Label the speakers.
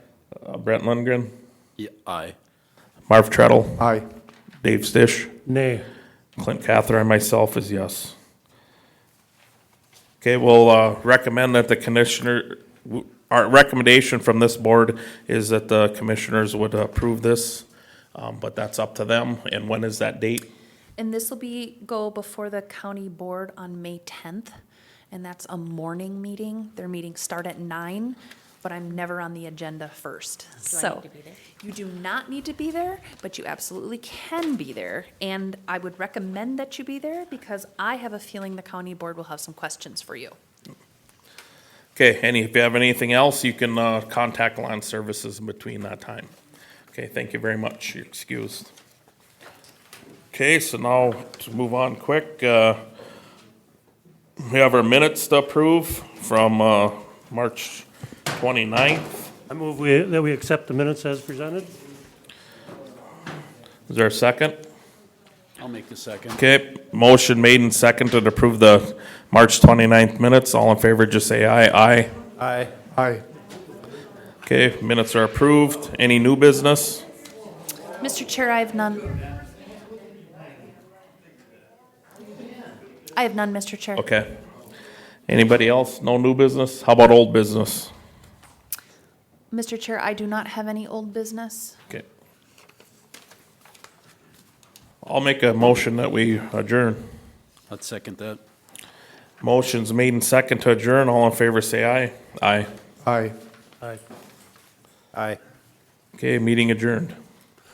Speaker 1: Uh, Brent Lundgren,
Speaker 2: Yeah, aye.
Speaker 1: Marv Treadle,
Speaker 3: Aye.
Speaker 1: Dave Stish,
Speaker 3: Nay.
Speaker 1: Clint Cather, and myself is yes. Okay, we'll uh, recommend that the commissioner, w- our recommendation from this board is that the commissioners would approve this, um, but that's up to them. And when is that date?
Speaker 4: And this will be, go before the county board on May tenth, and that's a morning meeting. Their meetings start at nine, but I'm never on the agenda first, so. You do not need to be there, but you absolutely can be there, and I would recommend that you be there because I have a feeling the county board will have some questions for you.
Speaker 1: Okay, any, if you have anything else, you can uh, contact Land Services in between that time. Okay, thank you very much, you're excused. Okay, so now to move on quick, uh, we have our minutes to approve from uh, March 29th.
Speaker 3: I move we- that we accept the minutes as presented.
Speaker 1: Is there a second?
Speaker 2: I'll make the second.
Speaker 1: Okay, motion made and seconded to approve the March 29th minutes. All in favor, just say aye. Aye.
Speaker 3: Aye. Aye.
Speaker 1: Okay, minutes are approved. Any new business?
Speaker 4: Mr. Chair, I have none. I have none, Mr. Chair.
Speaker 1: Okay. Anybody else? No new business? How about old business?
Speaker 4: Mr. Chair, I do not have any old business.
Speaker 1: Okay. I'll make a motion that we adjourn.
Speaker 2: I'd second that.
Speaker 1: Motion's made and second to adjourn. All in favor, say aye. Aye.
Speaker 3: Aye. Aye. Aye.
Speaker 1: Okay, meeting adjourned.